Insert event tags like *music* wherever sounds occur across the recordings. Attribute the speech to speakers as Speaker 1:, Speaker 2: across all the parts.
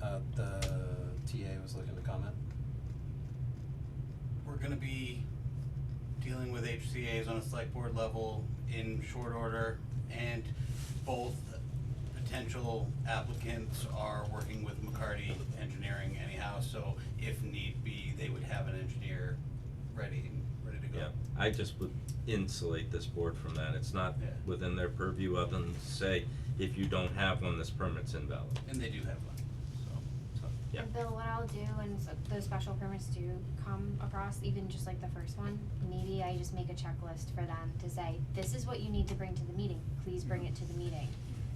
Speaker 1: uh, the TA was looking to comment.
Speaker 2: We're gonna be dealing with HCA's on a select board level in short order, and both potential applicants are working with McCarty Engineering anyhow, so if need be, they would have an engineer ready, ready to go.
Speaker 3: Yeah, I just would insulate this board from that, it's not
Speaker 2: Yeah.
Speaker 3: within their purview other than to say, if you don't have one, this permit's invalid,
Speaker 2: And they do have one, so.
Speaker 3: so, yeah.
Speaker 4: And Bill, what I'll do, when s- those special permits do come across, even just like the first one, maybe I just make a checklist for them to say, this is what you need to bring to the meeting, please bring it to the meeting.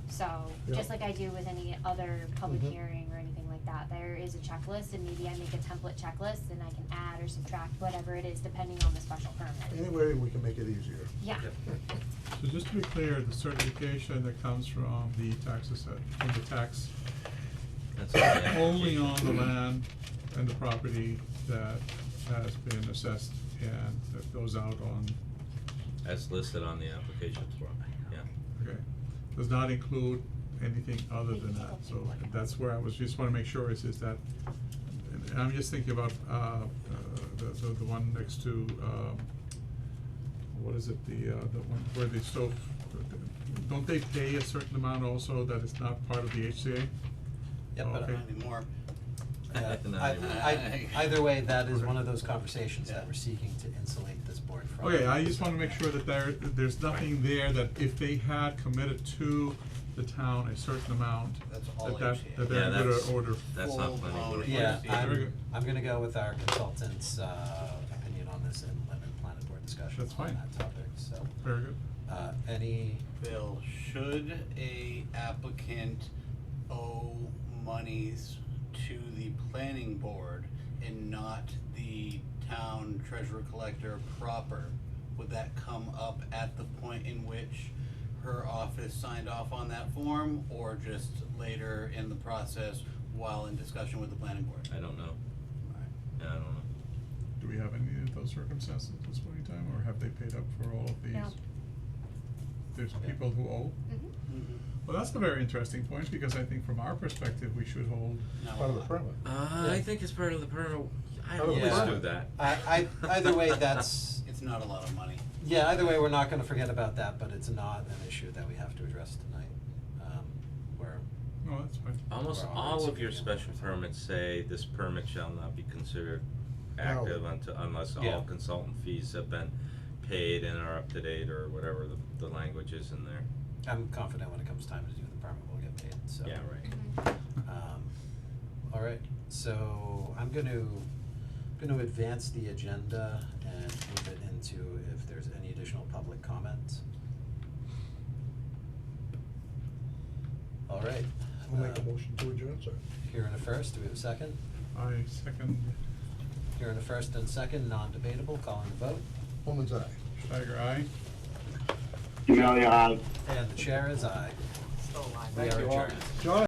Speaker 4: So, just
Speaker 5: Yeah.
Speaker 4: like I do with any other public
Speaker 5: Mhm.
Speaker 4: hearing or anything like that, there is a checklist, and maybe I make a template checklist, and I can add or subtract whatever it is, depending on the special permit.
Speaker 5: Any way we can make it easier.
Speaker 4: Yeah.
Speaker 6: So just to be clear, the certification that comes from the tax assessor, from the tax,
Speaker 3: That's all I have.
Speaker 6: only on the land and the property that has been assessed and that goes out on,
Speaker 3: As listed on the application form, yeah.
Speaker 6: okay, does not include anything other than that, so that's where I was, just wanna make sure is, is that, and and I'm just thinking about, uh, uh, the, the, the one next to, um, what is it, the, uh, the one where they stove, don't they pay a certain amount also that is not part of the HCA?
Speaker 1: Yep, but
Speaker 6: Oh, Okay.
Speaker 2: Not anymore.
Speaker 6: *laughs*
Speaker 1: Yeah,
Speaker 3: No,
Speaker 1: I,
Speaker 3: anyway.
Speaker 1: I, either way, that is one of those conversations
Speaker 2: Yeah.
Speaker 1: that we're seeking to insulate this board from.
Speaker 6: Okay, I just wanna make sure that there, that there's nothing there that if they had committed to the town a certain amount,
Speaker 2: That's all
Speaker 6: that that,
Speaker 2: HCA.
Speaker 6: that
Speaker 3: Yeah,
Speaker 6: they're in good
Speaker 3: that's-
Speaker 6: order.
Speaker 3: That's not planning board.
Speaker 2: Full-blown
Speaker 1: Yeah,
Speaker 2: HCA.
Speaker 6: Very
Speaker 1: I'm,
Speaker 6: good.
Speaker 1: I'm gonna go with our consultant's, uh, opinion on this in lemon planet board discussion
Speaker 6: That's
Speaker 1: on
Speaker 6: fine.
Speaker 1: that topic, so.
Speaker 6: Very good.
Speaker 1: Uh, any,
Speaker 2: Bill, should a applicant owe monies to the planning board and not the town treasurer collector proper? Would that come up at the point in which her office signed off on that form or just later in the process while in discussion with the planning board?
Speaker 3: I don't know,
Speaker 2: Alright.
Speaker 3: yeah, I don't know.
Speaker 6: Do we have any of those circumstances at this point in time, or have they paid up for all of these?
Speaker 4: No.
Speaker 6: There's people who owe?
Speaker 4: Mhm.
Speaker 2: Mhm.
Speaker 5: Mm-hmm.
Speaker 6: Well, that's a very interesting point, because I think from our perspective, we should hold,
Speaker 2: Not
Speaker 5: Part
Speaker 2: a
Speaker 5: of the
Speaker 2: lot.
Speaker 5: permit.
Speaker 3: Uh, I think it's part of the permit, I
Speaker 5: Part of
Speaker 3: always
Speaker 1: the
Speaker 3: do
Speaker 1: permit.
Speaker 3: that.
Speaker 1: I, I, either way, that's,
Speaker 2: It's not a lot of money.
Speaker 1: yeah, either way, we're not gonna forget about that, but it's not an issue that we have to address tonight. Um, we're,
Speaker 6: no, that's fine.
Speaker 3: Almost
Speaker 1: Well,
Speaker 3: all
Speaker 1: it's
Speaker 3: of your
Speaker 1: okay.
Speaker 3: special permits say this permit shall not be considered active until, unless
Speaker 1: Yeah.
Speaker 3: all consultant fees have been paid and are up to date or whatever the, the language is in there.
Speaker 1: I'm confident when it comes time to do the permit, we'll get paid, so.
Speaker 3: Yeah, right.
Speaker 4: Mhm.
Speaker 1: Um, all right, so I'm gonna, gonna advance the agenda and move it into if there's any additional public comment. All right.
Speaker 5: We'll make a
Speaker 1: uh,
Speaker 5: motion to adjourn, sir.
Speaker 1: Here in a first, do we have a second?
Speaker 6: I second
Speaker 1: Here in a first and second, non-debatable, calling the vote,
Speaker 5: Woman's eye.
Speaker 6: Tiger Eye.
Speaker 7: Demonte, aye.
Speaker 1: and the chair is aye. We are
Speaker 5: Thank you all.
Speaker 1: adjourned.
Speaker 5: John?